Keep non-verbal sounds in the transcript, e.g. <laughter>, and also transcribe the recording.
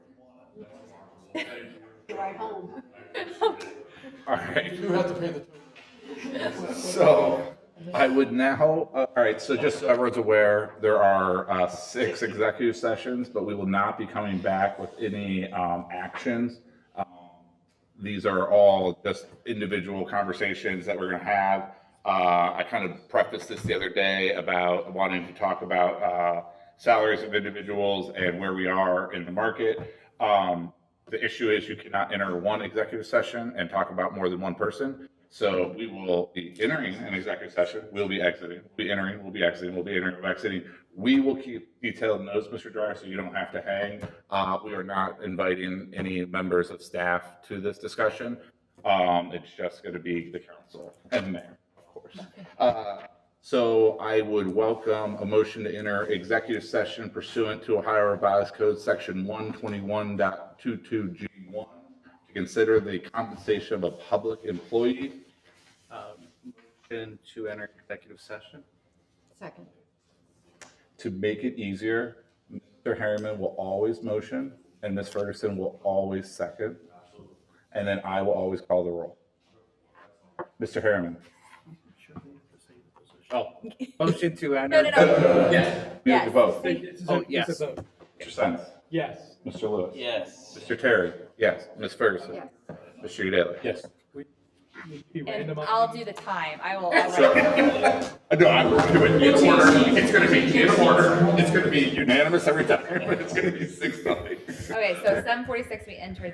Right home. All right, You have to pay the. so I would now, uh, all right, so just so everyone's aware, there are uh, six executive sessions, but we will not be coming back with any um, actions. Um, These are all just individual conversations that we're going to have. Uh, I kind of prefaced this the other day about wanting to talk about uh, salaries of individuals and where we are in the market. Um, The issue is you cannot enter one executive session and talk about more than one person. So we will be entering an executive session, we'll be exiting, we'll be entering, we'll be exiting, we'll be entering, we'll be exiting. We will keep detailed notes, Mr. Dryer, so you don't have to hang. Uh, we are not inviting any members of staff to this discussion. Um, it's just gonna be the council and mayor, of course. Uh, so I would welcome a motion to enter executive session pursuant to Ohio Revised Code, section one twenty-one G one, to consider the compensation of a public employee. Um, Motion to enter executive session? Second. To make it easier, Mr. Harriman will always motion, and Ms. Ferguson will always second. And then I will always call the roll. Mr. Harriman? Oh, motion to No, enter. no, no. Yes. You have to vote. Yes. Oh, yes. Mr. Sens? Yes. Mr. Lewis? Yes. Mr. Terry? Yes. Ms. Ferguson? Mr. Daly? Yes. And I'll do the time. I will. I'll So, write- no, I'm gonna do it in order. It's gonna be in <laughs> order. It's gonna be unanimous every time, but it's gonna be six nothing. Okay, so seven forty-six, we entered